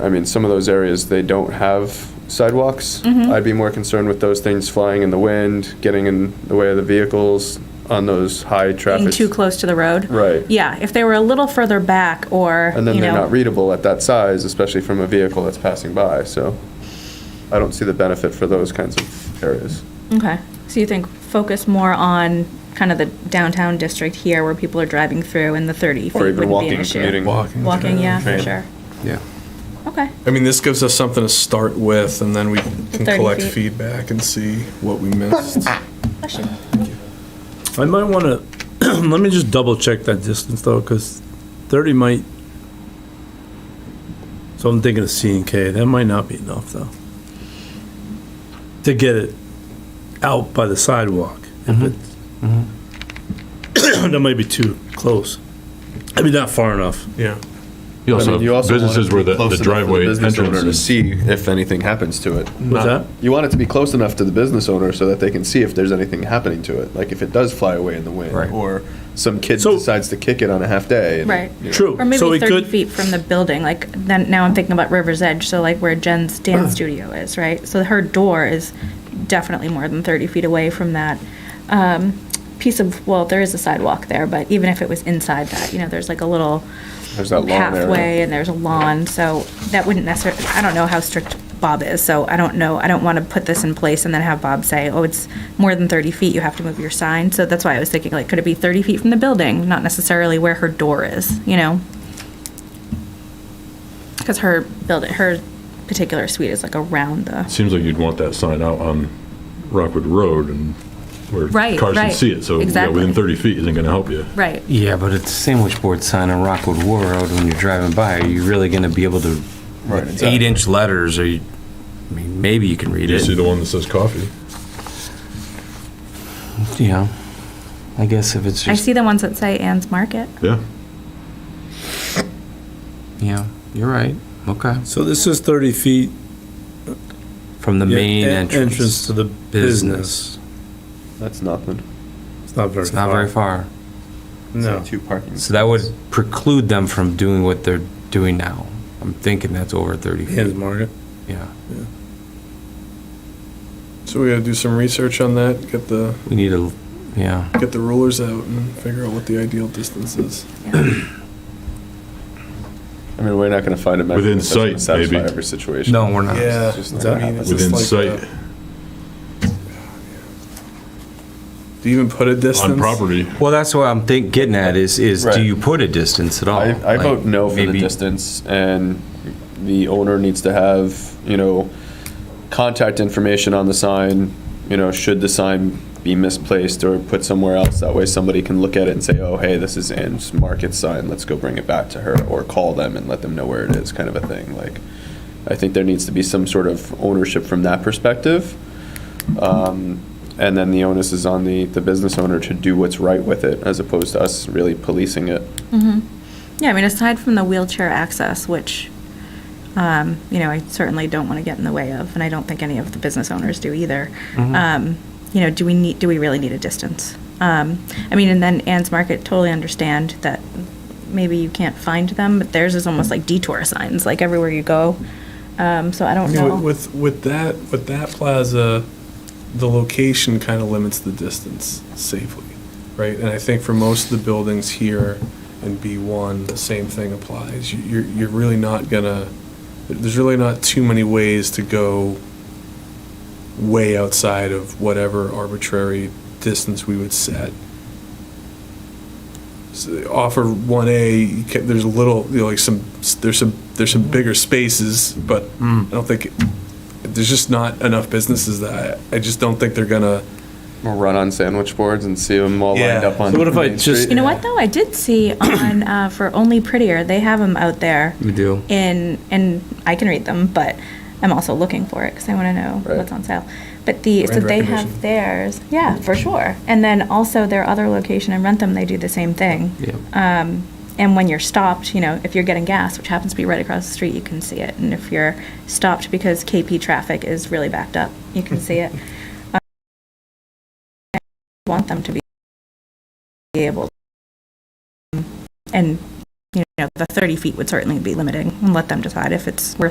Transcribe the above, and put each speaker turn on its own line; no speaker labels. I mean, some of those areas, they don't have sidewalks.
Mm-hmm.
I'd be more concerned with those things flying in the wind, getting in the way of the vehicles on those high
being
traffic.
too close to the road.
Right.
Yeah, if they were a little further back or,
And then
you
they're not
know,
readable at that size, especially from a vehicle that's passing by, so I don't see the benefit for those kinds of areas.
okay. So you think focus more on kind of the downtown district here where people are driving through and the 30 feet
Or even
wouldn't be an
walking,
issue.
commuting.
Walking.
Walking, yeah, for
Train.
sure.
Yeah.
Okay,
I mean, this gives us something to start with, and then we can
30
collect
feet.
feedback and see what we missed.
question.
I might want to, let me just double check that distance though, because 30 might, so I'm thinking of C and K, that might not be enough though. To get it out by the sidewalk.
Mm-hmm.
if it's- That might be too close. I mean, not far enough.
Yeah.
You
I mean,
also
you
have
also want it
businesses
to be
where the
close
the
enough for
driveway
business owner To
entrance.
see if anything happens to it.
What's that?
You want it to be close enough to the business owner so that they can see if there's anything happening to it, like if it does fly away in the wind,
Right.
or some kid
So-
decides to kick it on a half day. and-
Right.
True.
Or
So
maybe 30
it could-
feet from the building, like, then, now I'm thinking about River's Edge, so like where Jen's
Uh-huh.
dance studio is, right? So her door is definitely more than 30 feet away from that um, piece of, well, there is a sidewalk there, but even if it was inside that, you know, there's like a little
There's that lawn
halfway
area.
and there's a lawn, so that wouldn't necessarily, I don't know how strict Bob is, so I don't know, I don't want to put this in place and then have Bob say, oh, it's more than 30 feet, you have to move your sign. So that's why I was thinking, like, could it be 30 feet from the building, not necessarily where her door is, you know? Because her building, her particular suite is like around the,
Seems like you'd want that sign out on Rockwood Road and where
Right,
cars can
right.
see it, so yeah,
Exactly.
within 30 feet isn't going to help you.
right,
Yeah, but it's a sandwich board sign on Rockwood War Road when you're driving by. Are you really going to be able to, eight inch letters, or you, I mean, maybe you can read
You see
it.
the one that says coffee?
You know, I guess if it's
I
just,
see the ones that say Ann's Market.
Yeah.
yeah, you're right. Okay.
So this is 30 feet.
From the
yeah,
main
en-
entrance.
to the business.
business.
That's nothing.
It's not very
It's not very
far.
far.
No.
Two parking.
So that would preclude them from doing what they're doing now. I'm thinking that's over 30
Hands
feet.
Market.
Yeah.
So we gotta do some research on that, get the,
We need a, yeah.
get the rulers out and figure out what the ideal distance is.
I mean, we're not going to find a mechanism
Within
that's going to
sight, maybe.
satisfy every situation.
No, we're not.
Yeah.
It's just not
I
gonna
mean,
happen.
it's just
Within
like
sight,
the- Do you even put a distance?
on property.
Well, that's what I'm think, getting at is, is
Right.
do you put a distance at all?
I, I
Like,
vote no for the
maybe-
distance, and the owner needs to have, you know, contact information on the sign, you know, should the sign be misplaced or put somewhere else, that way somebody can look at it and say, oh, hey, this is Ann's Market sign, let's go bring it back to her, or call them and let them know where it is, kind of a thing, like, I think there needs to be some sort of ownership from that perspective. Um, And then the onus is on the, the business owner to do what's right with it, as opposed to us really policing it.
Mm-hmm. Yeah, I mean, aside from the wheelchair access, which, um, you know, I certainly don't want to get in the way of, and I don't think any of the business owners do either. Um, you know, do we need, do we really need a distance? Um, I mean, and then Ann's Market totally understand that maybe you can't find them, but theirs is almost like detour signs, like everywhere you go. Um, so I
I
don't
mean,
know.
With, with that, with that plaza, the location kind of limits the distance safely, right? And I think for most of the buildings here in B1, the same thing applies. You- You're, you're really not gonna, there's really not too many ways to go way outside of whatever arbitrary distance we would set. So offer one A, you ca- there's a little, you know, like some, there's some, there's some bigger spaces, but I don't think, there's just not enough businesses that I, I just don't think they're gonna.
We'll run on sandwich boards and see them all lined
Yeah.
up on.
So what if I
Main
just-
Street.
You know what, though? I did see on, uh, for Only Prettier, they have them out there.
We do.
in and I can read them, but I'm also looking for it because I want to know
Right.
what's on sale. But the so
Brand
they
recognition.
have theirs, yeah, for sure. And then also their other location in Rentham, they do the same thing. Um,
Yeah.
And when you're stopped, you know, if you're getting gas, which happens to be right across the street, you can see it. And if you're stopped because KP traffic is really backed up, you can see it. Um, I want them to be able, and you know, the 30 feet would certainly be limiting, and let them decide if it's worth.